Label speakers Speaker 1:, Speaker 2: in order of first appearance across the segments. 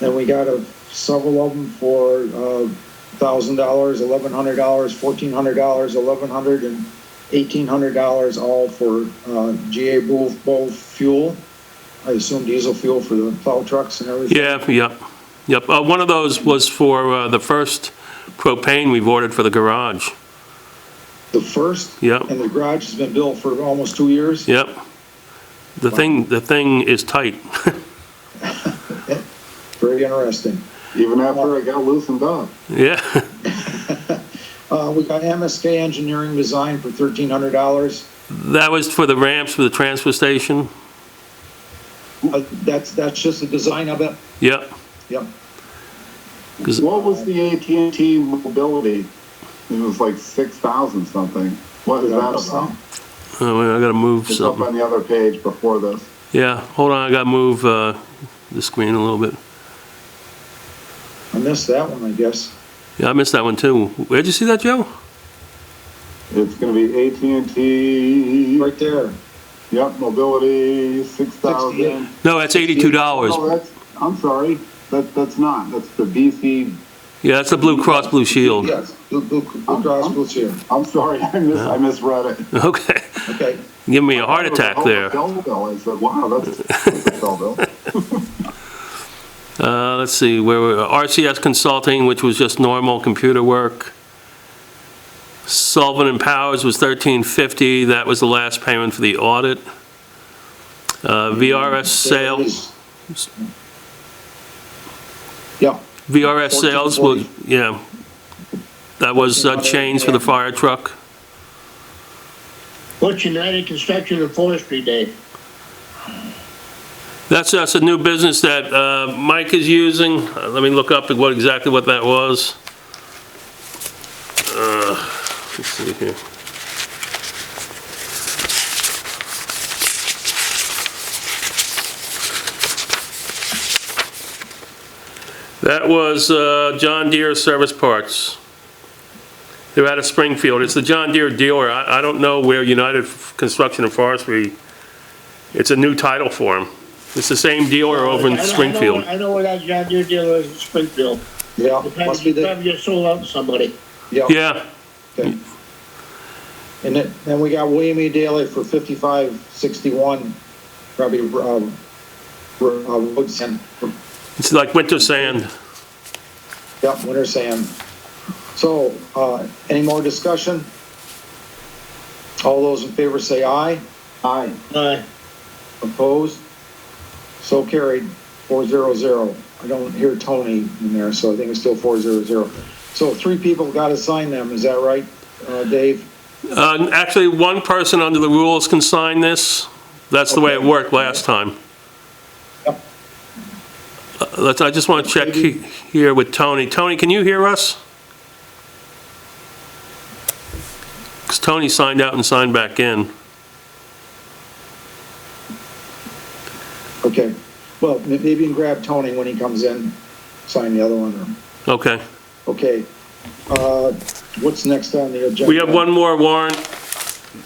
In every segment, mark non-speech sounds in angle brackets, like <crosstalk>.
Speaker 1: Then we got a, several of them for, uh, thousand dollars, eleven hundred dollars, fourteen hundred dollars, eleven hundred and eighteen hundred dollars, all for, uh, GA both, both fuel. I assume diesel fuel for the plow trucks and everything.
Speaker 2: Yeah, yep, yep. Uh, One of those was for uh, the first propane we've ordered for the garage.
Speaker 1: The first.
Speaker 2: Yep.
Speaker 1: And the garage has been built for almost two years.
Speaker 2: Yep. The thing, the thing is tight.
Speaker 1: Very interesting.
Speaker 3: Even after I got loosened up.
Speaker 2: Yeah, <laughs>
Speaker 1: Uh, we got MSK Engineering Design for thirteen hundred dollars.
Speaker 2: that was for the ramps for the transfer station.
Speaker 1: Uh, that's, that's just the design of it.
Speaker 2: Yep,
Speaker 1: Yep.
Speaker 2: because,
Speaker 3: What was the AT&T mobility? It was like six thousand something. What is that about?
Speaker 2: oh, I gotta move
Speaker 3: It's up
Speaker 2: something.
Speaker 3: on the other page before this.
Speaker 2: Yeah, hold on, I gotta move uh, the screen a little bit.
Speaker 1: I missed that one, I guess.
Speaker 2: Yeah, I missed that one too. Where'd you see that, Joe?
Speaker 3: It's gonna be AT&T,
Speaker 1: Right there.
Speaker 3: yep, mobility, six thousand.
Speaker 2: No, that's eighty-two dollars.
Speaker 3: Oh, that's, I'm sorry, that, that's not, that's the BC,
Speaker 2: Yeah, that's the Blue Cross Blue Shield.
Speaker 1: Yes, Blue, Blue, Blue Cross Blue Shield.
Speaker 3: I'm sorry, <laughs> I mis, I misread it.
Speaker 2: <laughs> Okay,
Speaker 1: Okay.
Speaker 2: give me a heart attack
Speaker 3: Oh,
Speaker 2: there.
Speaker 3: Belleville. I said, wow, that's,
Speaker 2: <laughs>
Speaker 3: that's Belleville.
Speaker 2: Uh, let's see, where, were- RCS Consulting, which was just normal computer work. Sullivan and Powers was 1350, that was the last payment for the audit. Uh, VRS
Speaker 1: There it
Speaker 2: sales,
Speaker 1: is. Yeah,
Speaker 2: VRS sales was,
Speaker 1: 1440.
Speaker 2: yeah. That was uh, chains for the fire truck.
Speaker 4: What's United Construction and Forestry Day?
Speaker 2: That's, that's a new business that uh, Mike is using. Uh, Let me look up what, exactly what that was. Uh, Let's see here. That was uh, John Deere Service Parts. They're out of Springfield. It's the John Deere dealer. I I don't know where United Construction and Forestry, it's a new title for them. It's the same dealer over
Speaker 4: I
Speaker 2: in
Speaker 4: know- I know-
Speaker 2: Springfield.
Speaker 4: I know where that John Deere dealer is in Springfield.
Speaker 1: yeah,
Speaker 4: The time
Speaker 1: must be
Speaker 4: you
Speaker 1: the,
Speaker 4: probably just sold out to somebody.
Speaker 1: yeah.
Speaker 2: Yeah,
Speaker 1: okay. And then, then we got William E. Daley for fifty-five sixty-one, probably, um, for, uh, wood sand,
Speaker 2: it's like winter sand.
Speaker 1: yeah, winter sand. So, uh, any more discussion? All those in favor say aye.
Speaker 3: Hi,
Speaker 4: Uh,
Speaker 1: Opposed? So carried, four zero zero. I don't hear Tony in there, so I think it's still four zero zero. So three people got to sign them, is that right, uh, Dave?
Speaker 2: Uh, Actually, one person under the rules can sign this. That's the way it
Speaker 1: Okay.
Speaker 2: worked last time.
Speaker 1: Yep.
Speaker 2: Uh, Let's, I just want to check he- here with Tony. Tony, can you hear us? Because Tony signed out and signed back in.
Speaker 1: Okay. Well, m- maybe you can grab Tony when he comes in, sign the other one. or-
Speaker 2: Okay.
Speaker 1: Okay. Uh, what's next on the agenda?
Speaker 2: We have one more warrant,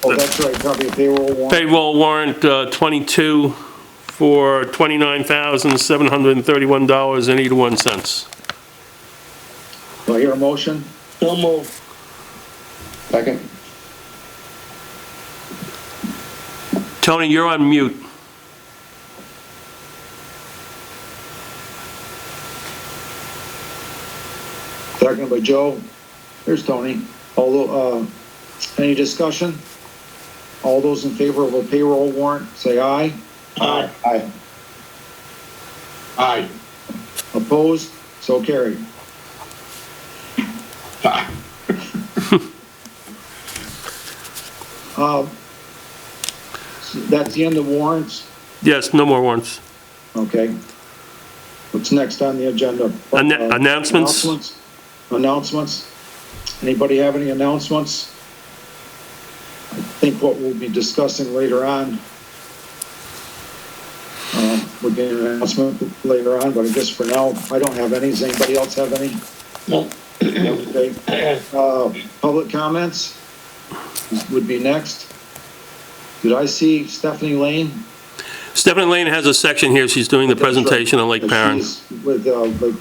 Speaker 1: Oh, that's right, probably a payroll warrant.
Speaker 2: payroll warrant uh, 22 for $29,731.81.
Speaker 1: Do I hear a motion?
Speaker 4: so move.
Speaker 1: Second.
Speaker 2: Tony, you're on mute.
Speaker 1: Second by Joe. Here's Tony. Although, uh, any discussion? All those in favor of a payroll warrant, say aye.
Speaker 4: Aye.
Speaker 1: Aye.
Speaker 4: Aye.
Speaker 1: Opposed? So carried. Uh, That's the end of warrants.
Speaker 2: Yes, no more warrants.
Speaker 1: Okay. What's next on the agenda?
Speaker 2: Ann-
Speaker 1: Uh,
Speaker 2: announcements?
Speaker 1: announcements? Announcements? Anybody have any announcements? I think what we'll be discussing later on, uh, would be an announcement later on, but I guess for now, I don't have any. Does anybody else have any?
Speaker 4: No.
Speaker 1: Okay. Uh, Public comments would be next. Did I see Stephanie Lane?
Speaker 2: Stephanie Lane has a section here, she's doing the presentation on Lake Perrin.
Speaker 1: She's With, uh, Lake